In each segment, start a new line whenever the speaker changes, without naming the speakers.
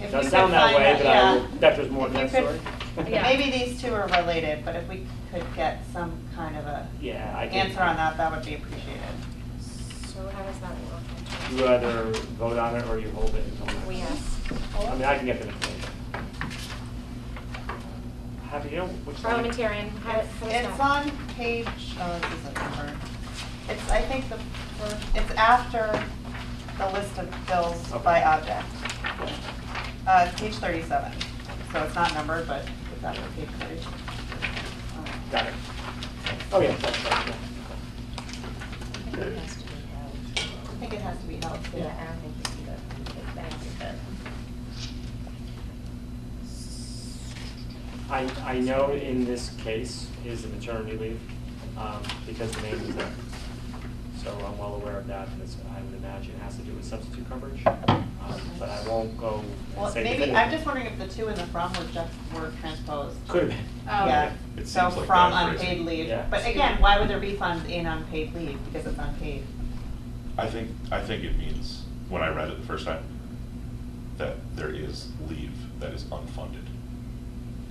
If
Doesn't
we
sound
could
that
find
way,
out-
but I,
yeah.
that was more
If
than
you
that
could-
story.
Yeah, Maybe these two are related, but if we could get some kind of a
Yeah, I can.
answer on that, that would be appreciated.
So how does that work? in terms
You either vote on it or you hold it until
of-
next.
We ask.
I mean, I can get the information. Have you, which one?
Parliamentarian, how,
It's
how
it's
does that?
on page, oh, this isn't numbered. It's, I think the, first- it's after the list of bills
Okay.
by object. Uh, it's page thirty-seven, so it's not numbered, but it's after page thirty. Um,
Got it. Oh, yeah. that's right, yeah.
I think it has to be held, too.
Yeah, I don't think we can go take back because
I, I know in this case is the maternity leave, um, because the name is there. So I'm well aware of that, and it's, I would imagine it has to do with substitute coverage, um, but I won't go and
Well,
say
maybe,
definitively.
I'm just wondering if the two in the from were just, were transposed.
Could have been,
Oh.
Yeah,
It
so
seems like
from
bad
unpaid
phrasing.
leave.
Yeah.
But again, why would there be funds in unpaid leave? Because it's unpaid.
I think, I think it means, when I read it the first time, that there is leave that is unfunded.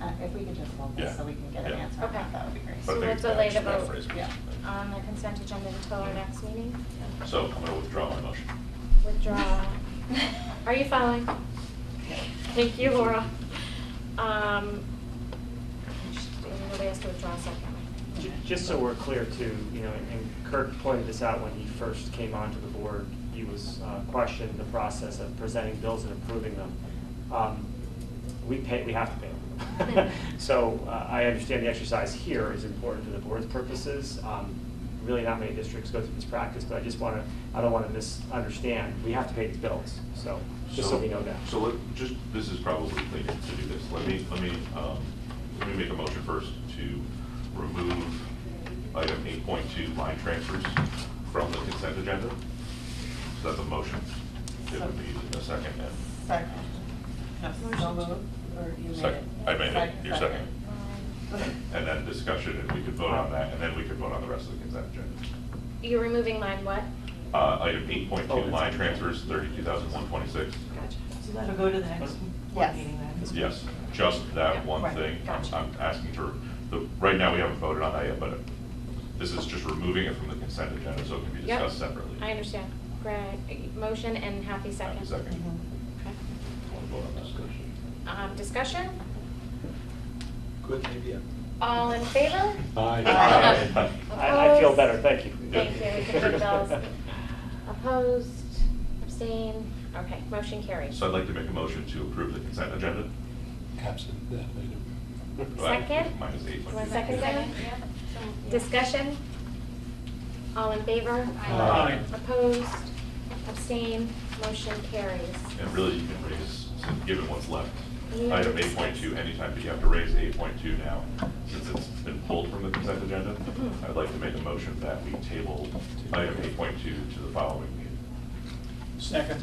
Uh, If we could just hold this
Yeah.
so we can get an
Yeah.
answer on that,
Okay.
that would be
But
So
great.
I think
let's
that
delay the
should be
vote.
phrasing.
Yeah.
On um, the consent agenda until our next meeting?
So I'm gonna withdraw my motion.
Withdraw. Are you following? Thank you, Laura. Um, Nobody has to withdraw a second.
Ju- Just so we're clear too, you know, and Kirk pointed this out when he first came onto the board, he was uh, questioned the process of presenting bills and approving them. Um, We pay, we have to pay them. So uh, I understand the exercise here is important to the board's purposes. Um, Really not many districts go through this practice, but I just want to, I don't want to misunderstand, we have to pay these bills, so, just so we know that.
So let, just, this is probably cleaner to do this. Let me, let me, um, let me make a motion first to remove item eight point two line transfers from the consent agenda. So that's a motion. It would be a second and,
Second. No, so moved, or you made it?
Second. I made it. You're
Um,
and then discussion, and we could vote on that, and then we could vote on the rest of the consent agenda.
You're removing line what?
Uh, item eight point
Oh,
two,
it's-
line transfers, thirty-two thousand one twenty-six.
So that'll go to the next
Yes.
board meeting then?
Yes, just that one
Right,
thing. I'm,
gotcha.
I'm asking for, the, right now, we haven't voted on that yet, but this is just removing it from the consent agenda, so it can be
Yep.
discussed separately.
I understand. Greg, motion and Happy second.
Happy second.
Mhm.
Okay.
Want to vote on that?
Um, discussion?
Good idea.
All in favor?
Aye.
Aye.
I I feel
Opposed?
better, thank you.
Thank you, we can pay the bills. Opposed, abstained, okay, motion carries.
So I'd like to make a motion to approve the consent agenda.
Absent that item.
Second?
Minus eight.
One second, Diane? Discussion? All in favor?
Aye.
Um, Opposed, abstained, motion carries.
And really, you can raise, since- given what's left,
Yeah.
item eight point two anytime, but you have to raise eight point two now, since it's been pulled from the consent agenda.
Mhm.
I'd like to make a motion that we table item eight point two to the following meeting.
Second.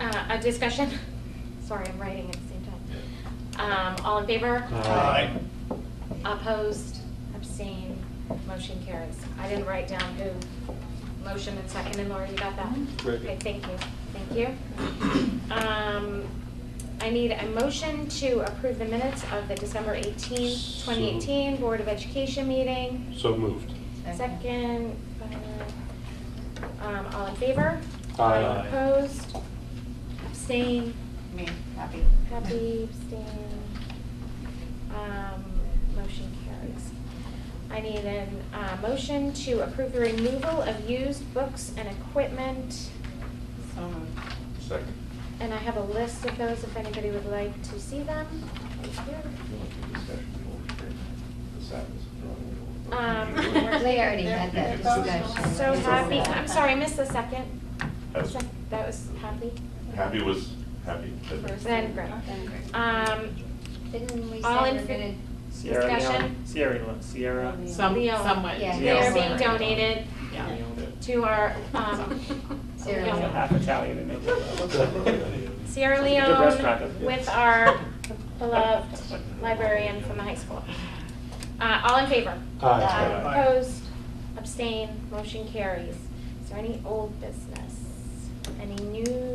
Uh, a discussion? Sorry, I'm writing at the same time. Um, all in favor?
Aye.
Opposed, abstained, motion carries. I didn't write down who motion and second, and Laura, you got that?
Very good.
Okay, thank you, thank you. Um, I need a motion to approve the minutes of the December eighteenth, twenty eighteen Board of Education meeting.
So moved.
Second, uh, um, all in favor?
Aye. Aye.
Opposed, abstained,
Me, happy.
Happy, abstain. Um, motion carries. I need an, uh, motion to approve the removal of used books and equipment.
So moved.
Second.
And I have a list of those if anybody would like to see them. Right here. Um,
They already had that
They're- they're
discussion.
So happy, I'm sorry, I missed the second.
Oh.
Sec- That was happy.
Happy was, happy.
Then Greg. Um,
Didn't we say
All in
we're
fa-
gonna
Sierra Leone,
Discussion?
Sierra Leone, Sierra.
Some,
Leo,
some went.
yeah,
to-
they are being
Yes.
donated
Yeah.
to our, um,
Sierra
Yeah.
Yeah,
Leone.
Half Italian in it.
Sierra
It's a good restaurant,
Leone
isn't it?
with our beloved librarian from the high school. Uh, all in favor?
Aye.
Aye.
Opposed, abstained, motion carries. Is there any old business? Any new